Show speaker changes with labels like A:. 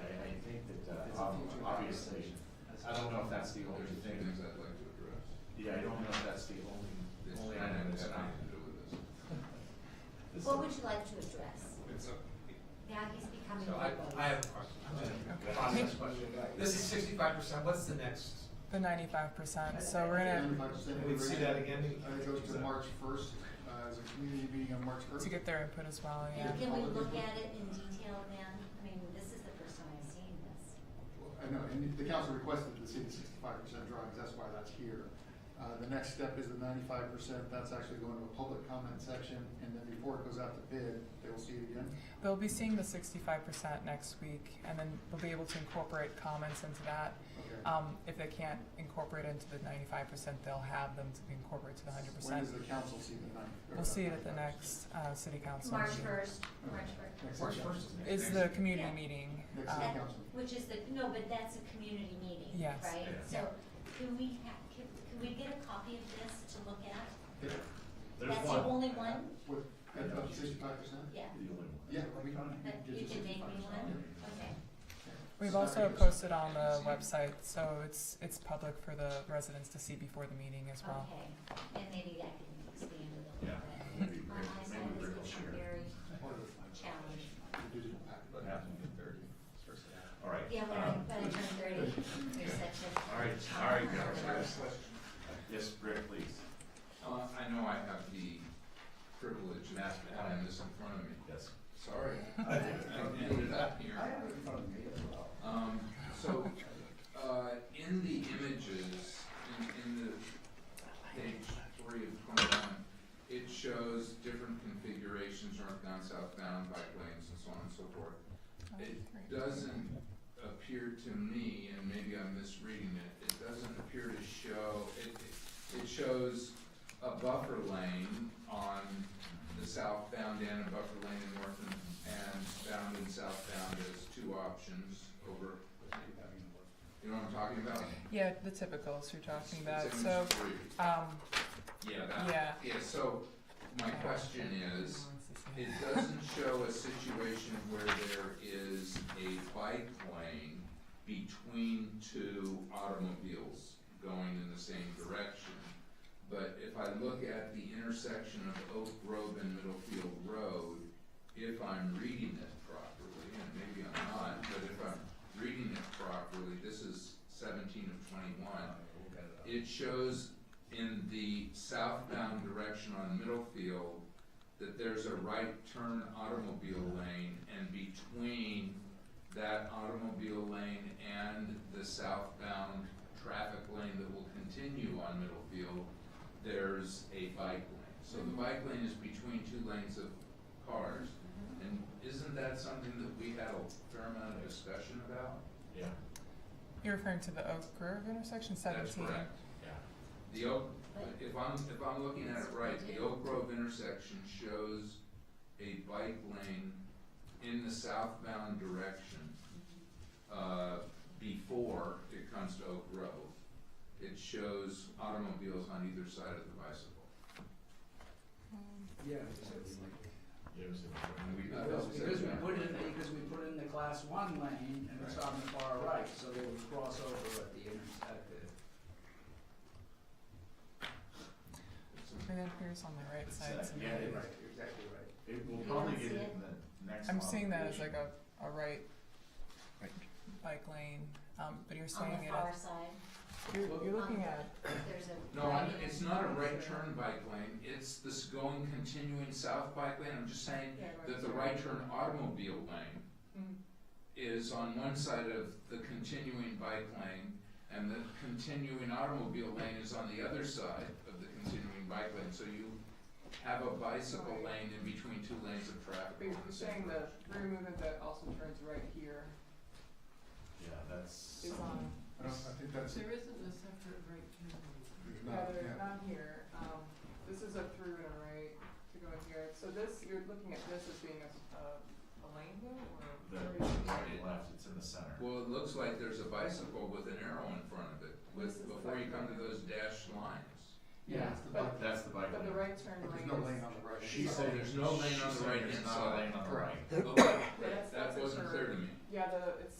A: uh, obviously, I don't know if that's the only
B: There's a few
A: thing.
B: things I'd like to address.
A: Yeah, I don't know if that's the only,
B: It's
A: only
B: not
A: item that's
B: have
A: not.
B: anything to do with this.
A: This-
C: What would you like to address?
B: It's a,
C: Now he's becoming.
D: So I, I have a question,
A: Yeah.
D: I'm gonna, process question. This is sixty-five percent, what's the next?
E: The ninety-five percent, so we're gonna,
A: Wait, say that again?
F: It goes to March first, uh, as a community meeting on March first.
E: to get their input as well, yeah.
C: And can we look at it in detail then? I mean, this is the first time I've seen this.
F: I know, and the council requested the city sixty-five percent drawings, that's why that's here. Uh, the next step is the ninety-five percent, that's actually going to a public comment section, and then before it goes out to bid, they will see it again.
E: They'll be seeing the sixty-five percent next week, and then we'll be able to incorporate comments into that.
F: Okay.
E: Um, if they can't incorporate into the ninety-five percent, they'll have them to be incorporated to the hundred percent.
F: When does the council see the ninety? or
E: We'll see it at the
F: 95%?
E: next, uh, city council
C: March
E: meeting.
C: first, March
F: Okay.
C: first.
F: Next
D: March
F: agenda.
D: first is next.
E: Is the community
C: Yeah.
E: meeting, um,
F: Next city council.
C: Which is the, no, but that's a community meeting, right?
A: Yeah.
E: Yes.
C: So can we have, can, can we get a copy of this to look at?
F: Yeah,
A: There's
C: That's the
A: one.
C: only one?
F: With, at up sixty-five percent?
C: Yeah,
A: The only one.
F: Yeah. we-
C: but
F: we
C: you
F: did the
C: can make me
F: 65%,
C: one,
F: yeah.
C: okay.
E: We've
F: So
E: also
F: that goes-
E: posted on the website, so it's, it's public for the residents to see before the meeting as well.
C: Okay, and maybe that can expand a
A: Yeah.
C: little bit.
A: Maybe
C: My
A: Rick-
C: eyesight
A: maybe
C: has
A: Rick will
C: become
A: share.
C: very
F: Part of
C: challenged.
F: the digital packet.
B: but
A: Yeah.
B: happening at thirty, starts to happen.
A: All right.
C: Yeah, when
A: um,
C: I, when I turn thirty, there's such a.
A: All right, all right,
C: challenge.
A: guys. Yes, Rick, please.
B: Uh, I know I have the privilege of having this in front of me.
A: Yes.
B: Sorry. I ended up here. Um, so, uh, in the images, in, in the page three of twenty-one, it shows different configurations, northbound, southbound, bike lanes, and so on and so forth. It doesn't appear to me, and maybe I'm misreading it, it doesn't appear to show, it, it- it shows a buffer lane on the southbound end and buffer lane in north and, and bound and southbound as two options over. You know what I'm talking about?
E: Yeah, the typicals you're talking about,
B: It's
E: so,
B: image three.
E: um,
B: Yeah, that,
E: yeah.
B: yeah, so my
E: Uh,
B: question is,
E: wants to see
B: it
E: it.
B: doesn't show a situation where there is a bike lane between two automobiles going in the same direction. But if I look at the intersection of Oak Grove and Middlefield Road, if I'm reading it properly, and maybe I'm not, but if I'm reading it properly, this is seventeen of twenty-one. It shows in the southbound direction on Middlefield, that there's a right turn automobile lane, and between that automobile lane and the southbound traffic lane that will continue on Middlefield, there's a bike lane. So the bike lane is between two lanes of cars, and isn't that something that we had a fair amount of discussion about?
A: Yeah,
E: You're referring to the Oak Grove intersection
B: That's
E: seventeen?
B: correct.
A: yeah.
B: The Oak, if I'm, if I'm looking at it right, the Oak Grove intersection shows a bike lane in the southbound direction, uh, before it comes to Oak Grove. It shows automobiles on either side of the bicycle.
G: Yeah, because it was like,
A: There's
B: And
A: a-
B: we- that
G: because,
B: was-
G: because we put in, because we put in the class one lane and it's on the far right, so they would cross over at the inter, at the,
E: And then here's on the right side. so
A: Yeah,
E: maybe-
A: it-
G: right, you're exactly right.
A: It will
C: You
A: probably
C: don't
A: get
C: see
A: it
C: it?
A: in the next.
E: I'm
A: model.
E: seeing that as like a, a right bike lane, um, but you're
C: On
E: saying
C: the
E: it
C: far
E: as,
C: side,
E: you're, you're looking at,
C: there's a.
B: No, I'm- it's not a right turn bike lane, it's this going continuing south bike lane, I'm just saying
C: Yeah,
B: that the right turn automobile lane
H: Hmm.
E: Mm.
B: is on one side of the continuing bike lane, and the continuing automobile lane is on the other side of the continuing bike lane, so you have a bicycle lane in between two lanes of traffic.
H: Wait, You're saying the rear movement that also turns right here.
A: Yeah, that's.
H: It's on.
F: I don't, I think that's,
H: There isn't a separate right turn.
F: there's
H: Yeah,
F: not,
H: there's
F: yeah.
H: not here, um, this is a through and a right to go in here, so this, you're looking at this as being a, a- a lane
A: The
H: though, or? or is it-
A: right and left, it's in the center.
B: Well, it looks like there's a bicycle with an arrow in front of it, with, before you come to those dashed lines.
H: Yeah,
F: it's the
H: but,
A: That's the bike
H: but the
A: lane.
H: right turn
F: But
H: lane is.
F: there's no lane on the right.
A: She
B: So
A: said
B: there's no lane on
A: she
B: the
A: said
B: right
A: there's
B: hand
A: not a
B: side.
A: lane on the
F: Correct.
A: right.
B: Okay,
H: That's-
B: Oh, that
H: that's a
B: wasn't
H: turn.
B: clear to me.
H: Yeah, the, it's